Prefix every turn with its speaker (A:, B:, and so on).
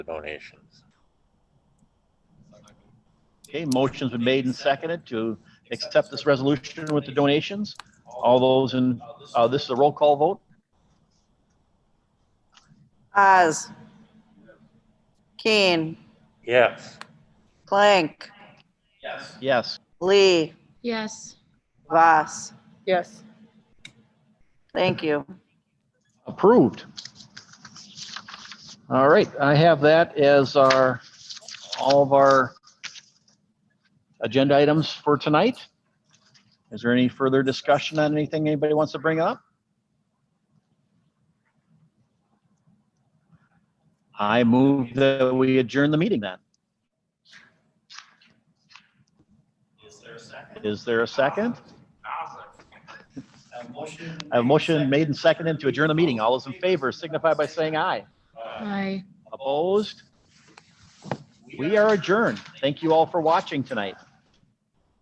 A: the donations.
B: Okay, motion's been made and seconded to accept this resolution with the donations. All those in, uh, this is a roll call vote?
C: Oz. Keen,
A: Yes,
C: Plank,
B: Yes.
C: Lee,
D: Yes,
C: Voss.
E: Yes.
C: Thank you.
B: Approved. All right, I have that as our, all of our agenda items for tonight. Is there any further discussion on anything anybody wants to bring up? I move that we adjourn the meeting then. Is there a second? I have a motion made and seconded to adjourn the meeting. All those in favor signify by saying aye.
D: aye.
B: Opposed? We are adjourned. Thank you all for watching tonight.